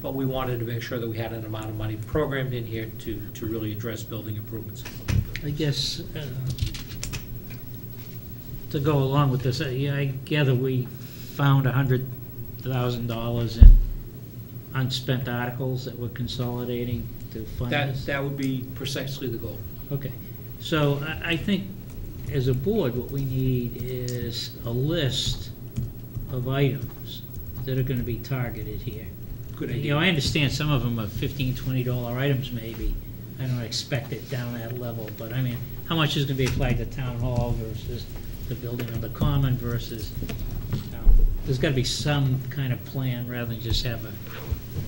but we wanted to make sure that we had an amount of money programmed in here to, to really address building improvements. I guess, uh, to go along with this, I I gather we found $100,000 in unspent articles that we're consolidating to fund That, this? that would be precisely the goal. Okay, so I, I think as a board, what we need is a list of items that are gonna be targeted here. Good You know, idea. I understand some of them are fifteen, twenty dollar items maybe. I don't expect it down that level, but I mean, how much is gonna be applied to town hall versus the building on the common versus, you know, there's gotta be some kind of plan rather than just have an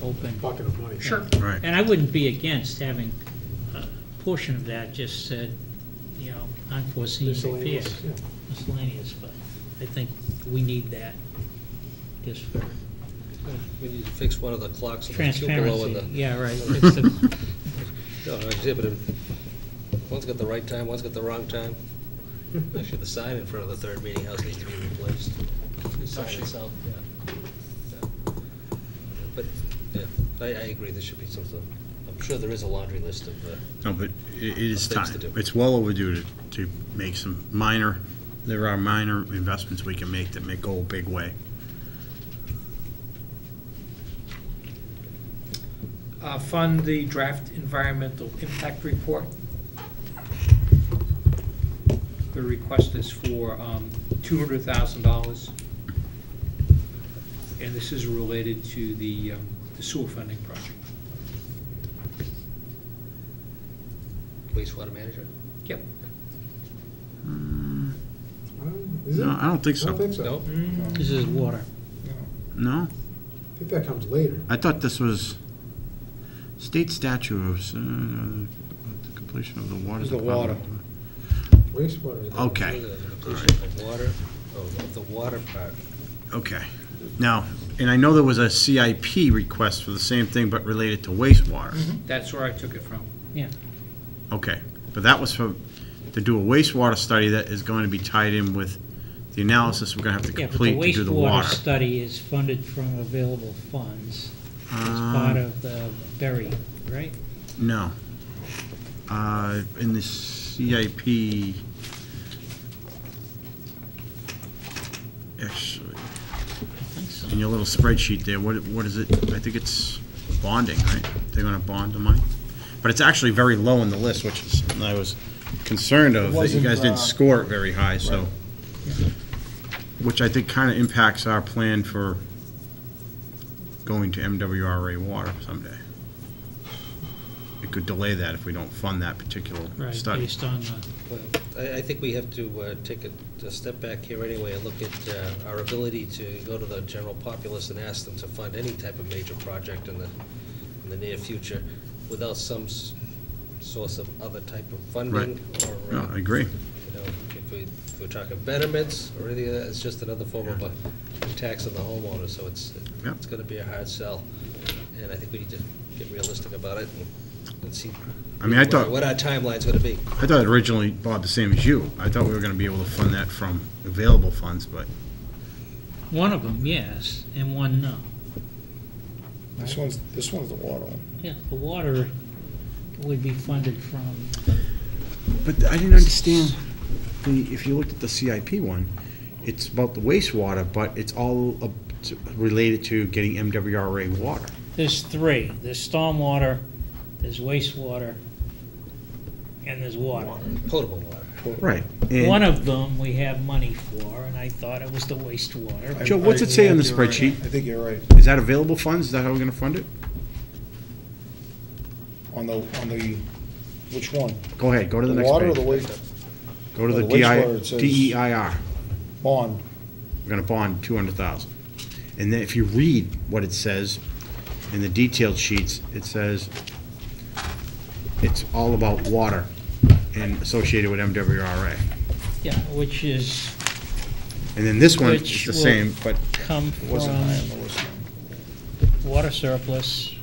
open. bucket of money. Sure. Right. And I wouldn't be against having a portion of that just said, you know, unforeseen repairs. Miscellaneous, yeah. Miscellaneous, but I think we need that just for We need to fix one of the clocks in the cupola transparency. with the, Yeah, right. It's the- no, no, exhibit. One's got the right time, one's got the wrong time. Actually, the sign in front of the third meeting house needs to be replaced. The sign itself, yeah. Yeah. But, yeah, I, I agree, there should be something, I'm sure there is a laundry list of, uh, No, but i- it is Things time. to do. It's well overdue to, to make some minor, there are minor investments we can make that may go a big way. Uh, Fund the draft environmental impact report. The request is for um, $200,000. And this is related to the um, the sewer funding project. wastewater manager. Yep. Mm, Is it? No, I don't think I so. don't think so. No? This is water. No? I think that comes later. I thought this was state statute of, uh, the completion of the water. It's the water. department. Wastewater. Okay. The completion of Water, oh, of the water part. Okay. Now, and I know there was a CIP request for the same thing, but related to wastewater. Mm-hmm. That's where I took it from. Okay, but that was for, to do a wastewater study that is going to be tied in with the analysis we're gonna have to Yeah, but the complete to do the wastewater water. study is funded from available funds. It's Um, part of the berry, right? No. Uh, in the CIP. Actually, I think so. in your little spreadsheet there, what, what is it? I think it's bonding, right? They're gonna bond the money? But it's actually very low in the list, which is, and I was concerned of, that you guys Wasn't, uh, didn't score it very high, so. Which I think kinda impacts our plan for going to MWRA water someday. It could delay that if we don't fund that particular Right, study. based on the, Well, I, I think we have to uh, take a, a step back here anyway and look at uh, our ability to go to the general populace and ask them to fund any type of major project in the, in the near future without some s- source of other type of funding or, No, uh, I agree. you know, if we, if we're talking betterments or anything, of that, it's just another form of a tax on the homeowner, so it's, uh, Yeah. it's gonna be a hard sell. And I think we need to get realistic about it and- and see. I mean, I thought- What our timeline's gonna be. I thought originally, Bob, the same as you, I thought we were gonna be able to fund that from available funds, but one of them, yes, and one, no. This one's, this one's the water one. Yeah, the water would be funded from, But I didn't understand, the, if you looked at the CIP one, it's about the wastewater, but it's all up to- related to getting MWRA water. there's three. There's stormwater, there's wastewater, and there's water. potable water. Right. One of them we have money for, and I thought it was the wastewater. Joe, what's it say on the spreadsheet? I think you're right. Is that available funds? Is that how we're gonna fund it? On the, on the, which one? Go ahead, go to the The next water or the page. waste Go to the the wastewater, DI, it says- DEIR. bond? E We're gonna bond two hundred thousand. And then if you read what it says in the detailed sheets, it says it's all about water and associated with MWRA. Yeah, which is And then this one is Which the will- same, but come It wasn't high on from the list. water surplus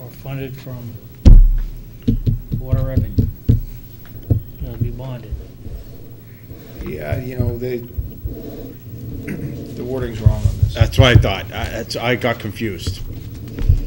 or funded from water revenue. It'll be bonded. Yeah, you know, they, the wording's wrong on this. that's what I thought. I, that's, I got confused.